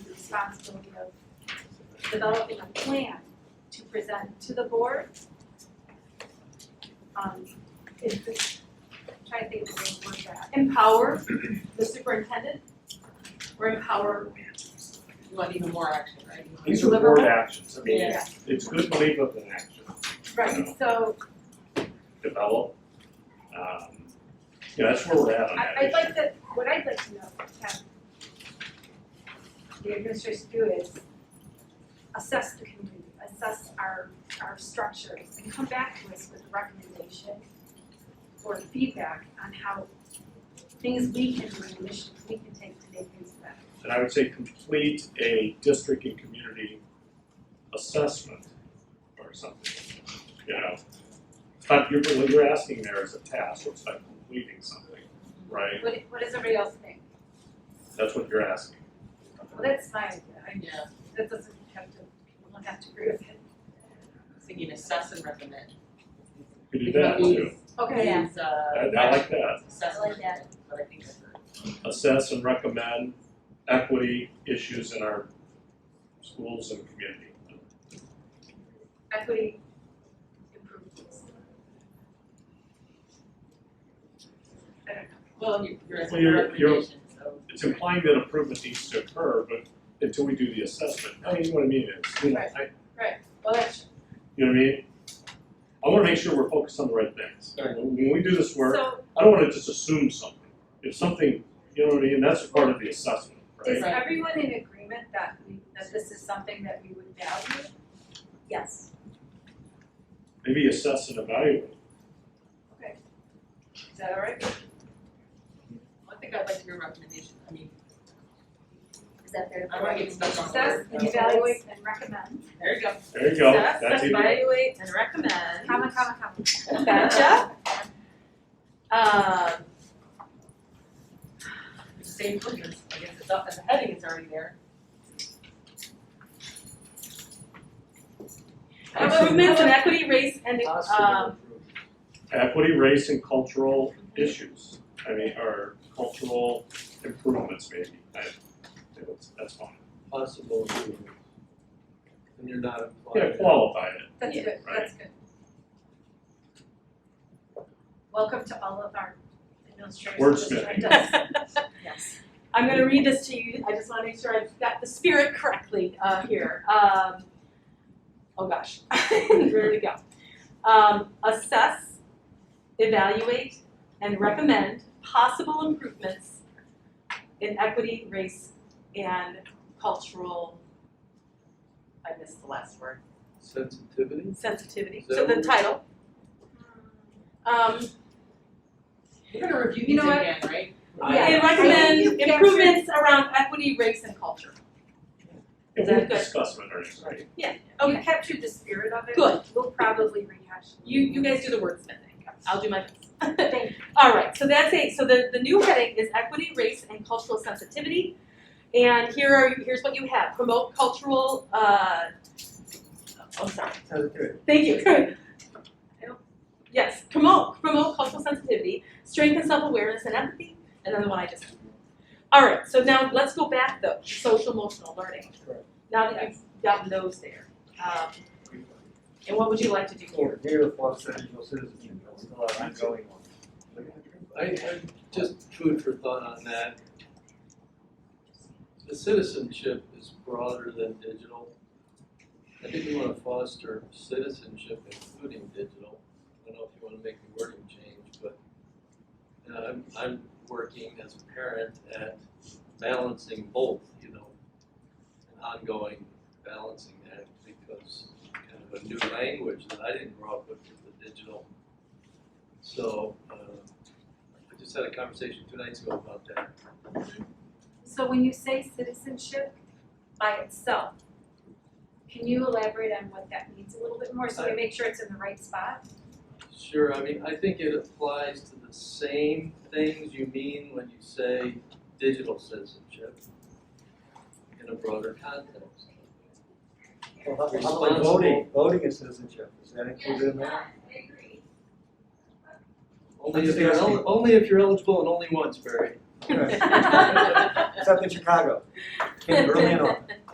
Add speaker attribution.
Speaker 1: responsibility of developing a plan to present to the board. Um, is this, trying to think of the word for that, empower the superintendent or empower,
Speaker 2: You want even more action, right?
Speaker 3: These are board actions, I mean,
Speaker 1: yeah,
Speaker 3: it's good to leave with an action,
Speaker 1: right, so
Speaker 3: develop. Um, Yeah, that's where we're at on
Speaker 1: I,
Speaker 3: that.
Speaker 1: I'd like to, what I'd like to know, have the administration do is assess the community, assess our, our structures, and come back to us with a recommendation or feedback on how things we can do, and initiatives we can take to make things better.
Speaker 3: And I would say complete a district and community assessment or something, you know. It's not, you're, what you're asking there is a task, it's like completing something, right?
Speaker 1: What, what does everybody else think?
Speaker 3: That's what you're asking.
Speaker 1: Well, that's my idea, I,
Speaker 2: Yeah,
Speaker 1: that doesn't have to, people don't have to agree with it.
Speaker 2: thinking assess and recommend.
Speaker 3: You do that too,
Speaker 1: Okay,
Speaker 4: Oh, Yeah.
Speaker 2: Is, uh,
Speaker 3: I, I like that.
Speaker 2: Assess
Speaker 4: I like that.
Speaker 2: but I think that's a.
Speaker 3: assess and recommend equity issues in our schools and community.
Speaker 1: equity improvements. I don't know.
Speaker 2: Well, you- you're
Speaker 3: Well, you're-
Speaker 2: asking for recommendations, so.
Speaker 3: It's implying that improvement needs to occur, but until we do the assessment, I mean, what I mean is, you know, I,
Speaker 1: Well, that's,
Speaker 3: you know what I mean? I wanna make sure we're focused on the right things.
Speaker 2: Right.
Speaker 3: When we do this work,
Speaker 1: so
Speaker 3: I don't wanna just assume something. If something, you know what I mean, that's part of the assessment,
Speaker 1: is
Speaker 3: right?
Speaker 2: Right.
Speaker 1: everyone in agreement that we, that this is something that we would value?
Speaker 4: Yes.
Speaker 3: Maybe assess and evaluate.
Speaker 1: Okay. Is that all right?
Speaker 2: I think I'd like to hear a recommendation, I mean,
Speaker 4: Is that fair?
Speaker 2: I don't wanna get stuck on.
Speaker 1: Assess,
Speaker 2: words.
Speaker 1: and evaluate, and recommend.
Speaker 2: There you go.
Speaker 3: There you go,
Speaker 5: Assess,
Speaker 3: that's easy.
Speaker 5: evaluate, and recommend.
Speaker 1: Comma, comma, comma.
Speaker 5: Gotcha. Um,
Speaker 2: Same purpose, I guess it's up, the heading is already there.
Speaker 5: improvements in equity, race, and,
Speaker 6: Oh,
Speaker 5: um,
Speaker 3: equity, race, and cultural issues. I mean, or cultural improvements maybe, I, that's, that's fine.
Speaker 6: possible improvement. And you're not applying.
Speaker 3: Yeah,
Speaker 6: it.
Speaker 3: qualify it,
Speaker 1: That's good, that's good. Welcome to all of our administrators.
Speaker 3: Wordsmithing.
Speaker 4: Yes.
Speaker 5: I'm gonna read this to you, I just wanna make sure I've got the spirit correctly, uh, here, um, oh gosh, where do we go? Um, assess, evaluate, and recommend possible improvements in equity, race, and cultural, I missed the last word,
Speaker 6: Sensitivity?
Speaker 5: sensitivity, so the title, um,
Speaker 2: We're gonna review
Speaker 5: You
Speaker 2: these
Speaker 5: know what?
Speaker 2: again, right?
Speaker 5: I recommend improvements around equity, race, and culture.
Speaker 3: and
Speaker 5: That's
Speaker 3: we'll
Speaker 5: good.
Speaker 3: discuss what our next meeting.
Speaker 1: You captured the spirit of it.
Speaker 5: Good.
Speaker 1: We'll probably rehash. it.
Speaker 5: You, you guys do the wordsmithing, I'll do my best.
Speaker 1: Thank you.
Speaker 5: All right, so that's it, so the, the new heading is equity, race, and cultural sensitivity. And here are, here's what you have, promote cultural, uh, oh, sorry,
Speaker 6: Sensitivity.
Speaker 5: thank you. Yes, promote, promote cultural sensitivity, strengthen self-awareness and empathy, and then the one I just. All right, so now let's go back though, social emotional learning.
Speaker 6: Correct.
Speaker 5: Now that you've gotten those there, um, and what would you like to do here?
Speaker 6: Or near the Los Angeles citizen, it's still an ongoing one. I, I, just food for thought on that. The citizenship is broader than digital. I think we wanna foster citizenship including digital. I don't know if you wanna make the wording change, but you know, I'm, I'm working as a parent at balancing both, you know, an ongoing balancing act because kind of a new language that I didn't grow up with, with the digital. So, uh, I just had a conversation two nights ago about that.
Speaker 1: So when you say citizenship by itself, can you elaborate on what that means a little bit more so we make sure it's in the right spot?
Speaker 6: Sure, I mean, I think it applies to the same things you mean when you say digital citizenship in a broader context.
Speaker 7: Well, how about
Speaker 6: Responsible.
Speaker 7: voting, voting is citizenship, is that included in that?
Speaker 6: Only
Speaker 7: I'm
Speaker 6: if
Speaker 7: just
Speaker 6: you're,
Speaker 7: asking.
Speaker 6: el- only if you're eligible and only once, Barry.
Speaker 7: Except in Chicago, came early and often.